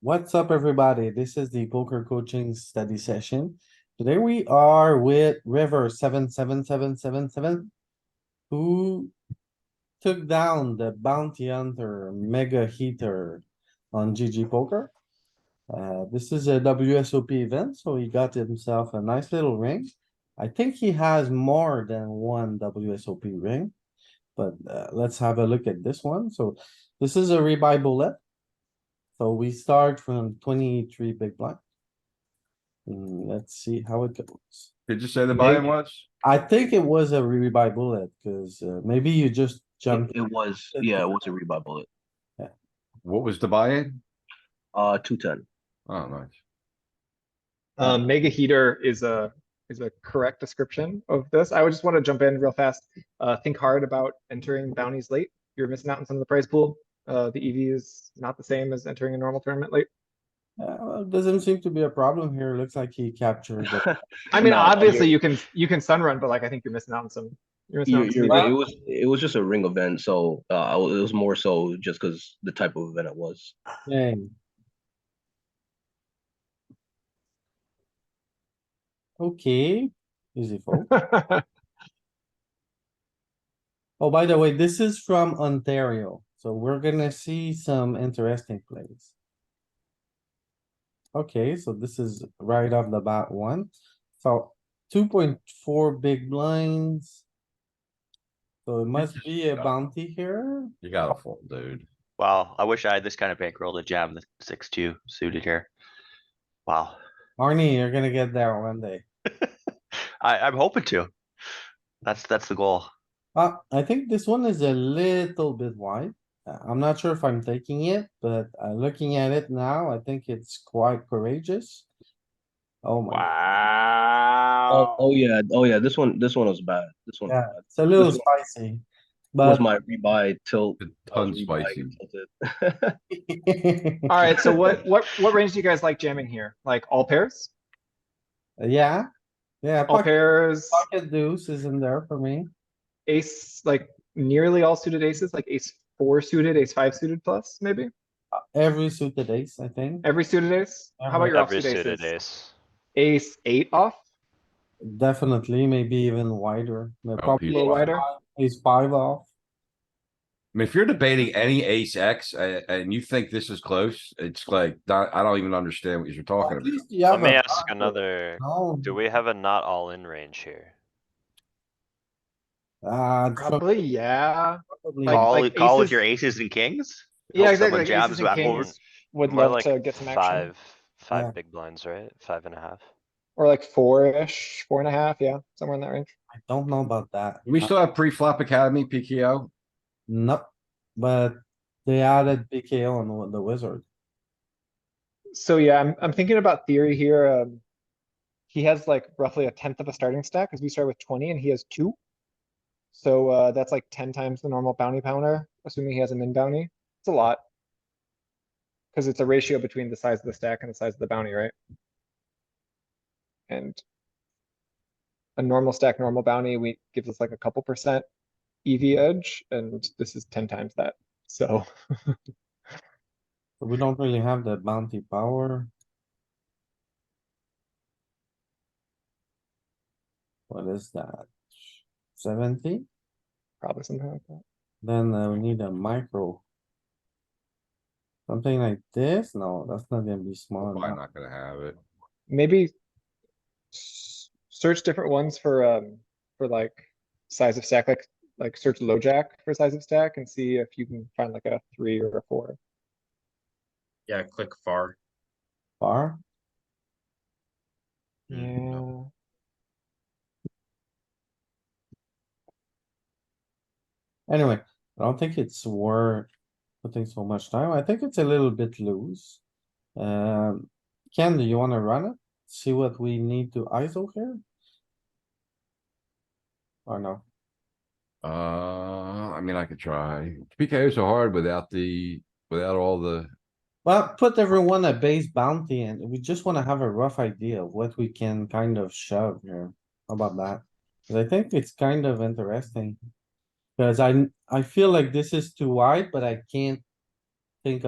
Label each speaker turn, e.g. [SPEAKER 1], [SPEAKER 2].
[SPEAKER 1] What's up, everybody? This is the poker coaching study session. Today we are with River seven, seven, seven, seven, seven. Who took down the bounty hunter mega heater on GG poker. Uh, this is a WSOP event, so he got himself a nice little ring. I think he has more than one WSOP ring. But uh, let's have a look at this one. So this is a rebuy bullet. So we start from twenty-three big blind. Mm, let's see how it goes.
[SPEAKER 2] Did you say the buy-in
[SPEAKER 1] Maybe.
[SPEAKER 2] was?
[SPEAKER 1] I think it was a rebuy bullet, cuz uh, maybe you just
[SPEAKER 3] It
[SPEAKER 1] jumped.
[SPEAKER 3] it was, yeah, it was a rebuy bullet,
[SPEAKER 2] What was the buy-in?
[SPEAKER 3] uh, two ten.
[SPEAKER 2] Oh, nice.
[SPEAKER 3] Uh-huh.
[SPEAKER 4] Um, mega heater is a, is a correct description of this. I would just want to jump in real fast. Uh, think hard about entering bounties late. You're missing out on some of the prize pool. Uh, the EV is not the same as entering a normal tournament late.
[SPEAKER 1] Uh, well, doesn't seem to be a problem here. Looks like he captured. it.
[SPEAKER 4] I mean,
[SPEAKER 3] No,
[SPEAKER 4] obviously
[SPEAKER 3] you're-
[SPEAKER 4] you can, you can sun run, but like, I think you're missing out on some. You're missing out on
[SPEAKER 3] You- You're
[SPEAKER 4] some E
[SPEAKER 3] right, it
[SPEAKER 4] EV.
[SPEAKER 3] was, it was just a ring event, so, uh, I wa- it was more so just cuz the type of event it was.
[SPEAKER 1] Dang. Okay, easy fold. Oh, by the way, this is from Ontario, so we're gonna see some interesting plays. Okay, so this is right off the bat one, so two point four big blinds. So it must be a bounty here.
[SPEAKER 2] You gotta fold, dude.
[SPEAKER 5] Wow, I wish I had this kind of bankroll to jam the six two suited here. Wow,
[SPEAKER 1] Arnie, you're gonna get there one eh? day.
[SPEAKER 5] I, I'm hoping to. That's, that's the goal.
[SPEAKER 1] Uh, I think this one is a little bit wide. Uh, I'm not sure if I'm taking it, but uh, looking at it now, I think it's quite courageous. Oh my,
[SPEAKER 3] Oh,
[SPEAKER 4] Wow.
[SPEAKER 3] oh yeah, oh yeah, this one, this one was bad, this one. was
[SPEAKER 1] Yeah,
[SPEAKER 3] bad.
[SPEAKER 1] it's a little
[SPEAKER 3] This
[SPEAKER 1] spicy,
[SPEAKER 3] Was
[SPEAKER 1] but
[SPEAKER 3] my rebuy tilt.
[SPEAKER 2] It
[SPEAKER 3] I was
[SPEAKER 2] Tons
[SPEAKER 3] rebuy
[SPEAKER 2] spicy.
[SPEAKER 3] tilted.
[SPEAKER 4] Alright, so what, what, what range do you guys like jamming here? Like all pairs?
[SPEAKER 1] yeah, yeah,
[SPEAKER 4] All
[SPEAKER 1] pocket,
[SPEAKER 4] pairs,
[SPEAKER 1] pocket deuce is in there for me.
[SPEAKER 4] ace, like nearly all suited aces, like ace four suited, ace five suited plus, maybe?
[SPEAKER 1] Uh, Every suited ace, I think,
[SPEAKER 4] Every suited ace? How
[SPEAKER 1] Every-
[SPEAKER 4] about your
[SPEAKER 6] Every
[SPEAKER 4] offsuit
[SPEAKER 6] suited
[SPEAKER 4] aces?
[SPEAKER 6] ace.
[SPEAKER 4] Ace eight off?
[SPEAKER 1] definitely, maybe even wider. They're
[SPEAKER 2] Oh,
[SPEAKER 1] probably
[SPEAKER 2] Ace
[SPEAKER 4] A little
[SPEAKER 2] five.
[SPEAKER 4] wider?
[SPEAKER 1] ace five off.
[SPEAKER 2] I mean, if you're debating any ace X uh, and you think this is close, it's like, not- I don't even understand what you're talking
[SPEAKER 1] At
[SPEAKER 2] about.
[SPEAKER 1] least you
[SPEAKER 6] Let
[SPEAKER 1] have
[SPEAKER 6] me
[SPEAKER 1] a
[SPEAKER 6] ask
[SPEAKER 1] pocket.
[SPEAKER 6] another,
[SPEAKER 1] No,
[SPEAKER 6] do we have a not all in range here?
[SPEAKER 1] uh, it's
[SPEAKER 4] Probably, yeah.
[SPEAKER 1] probably-
[SPEAKER 4] Like-
[SPEAKER 5] Call,
[SPEAKER 4] like
[SPEAKER 5] call with
[SPEAKER 4] aces-
[SPEAKER 5] your aces and kings?
[SPEAKER 4] Yeah,
[SPEAKER 5] Hope
[SPEAKER 4] exactly.
[SPEAKER 5] someone
[SPEAKER 4] like
[SPEAKER 5] jabs
[SPEAKER 4] aces and
[SPEAKER 5] back over.
[SPEAKER 4] kings Would
[SPEAKER 6] More
[SPEAKER 4] love
[SPEAKER 6] like
[SPEAKER 4] to get some action.
[SPEAKER 6] five,
[SPEAKER 1] Yeah.
[SPEAKER 6] five big blinds, right? Five and a half.
[SPEAKER 4] Or like four-ish, four and a half, yeah, somewhere in that range.
[SPEAKER 1] I don't know about that.
[SPEAKER 2] Do We
[SPEAKER 1] Uh,
[SPEAKER 2] still have pre-flop academy, PKO.
[SPEAKER 1] Nope, but they added BKO on the- the wizard.
[SPEAKER 4] So yeah, I'm, I'm thinking about theory here. Um, he has like roughly a tenth of a starting stack because we start with twenty and he has two. So uh, that's like ten times the normal bounty pounder, assuming he has a min bounty. It's a lot. Because it's a ratio between the size of the stack and the size of the bounty, right? And a normal stack, normal bounty, we gives us like a couple percent EV edge, and this is ten times that. So
[SPEAKER 1] So We don't really have the bounty power. What is that? Seventy?
[SPEAKER 4] probably something like that.
[SPEAKER 1] Then uh, we need a micro. Something like this? No, that's not gonna be small
[SPEAKER 2] Probably
[SPEAKER 1] enough.
[SPEAKER 2] not gonna have it.
[SPEAKER 4] maybe s- search different ones for um for like size of stack like like search low jack for size of stack and see if you can find like a three or a four
[SPEAKER 7] Yeah, click far.
[SPEAKER 1] Bar?
[SPEAKER 4] yeah
[SPEAKER 1] Anyway, I don't think it's worth putting so much time. I think it's a little bit loose. Um, Ken, do you wanna run it? See what we need to ISO here? Or no?
[SPEAKER 2] Uh, I mean, I could try. PKO's so hard without the, without all the,
[SPEAKER 1] Well, put everyone a base bounty and we just wanna have a rough idea of what we can kind of shove here. How about that? 'Cause I think it's kind of interesting. Cause I, I feel like this is too wide, but I can't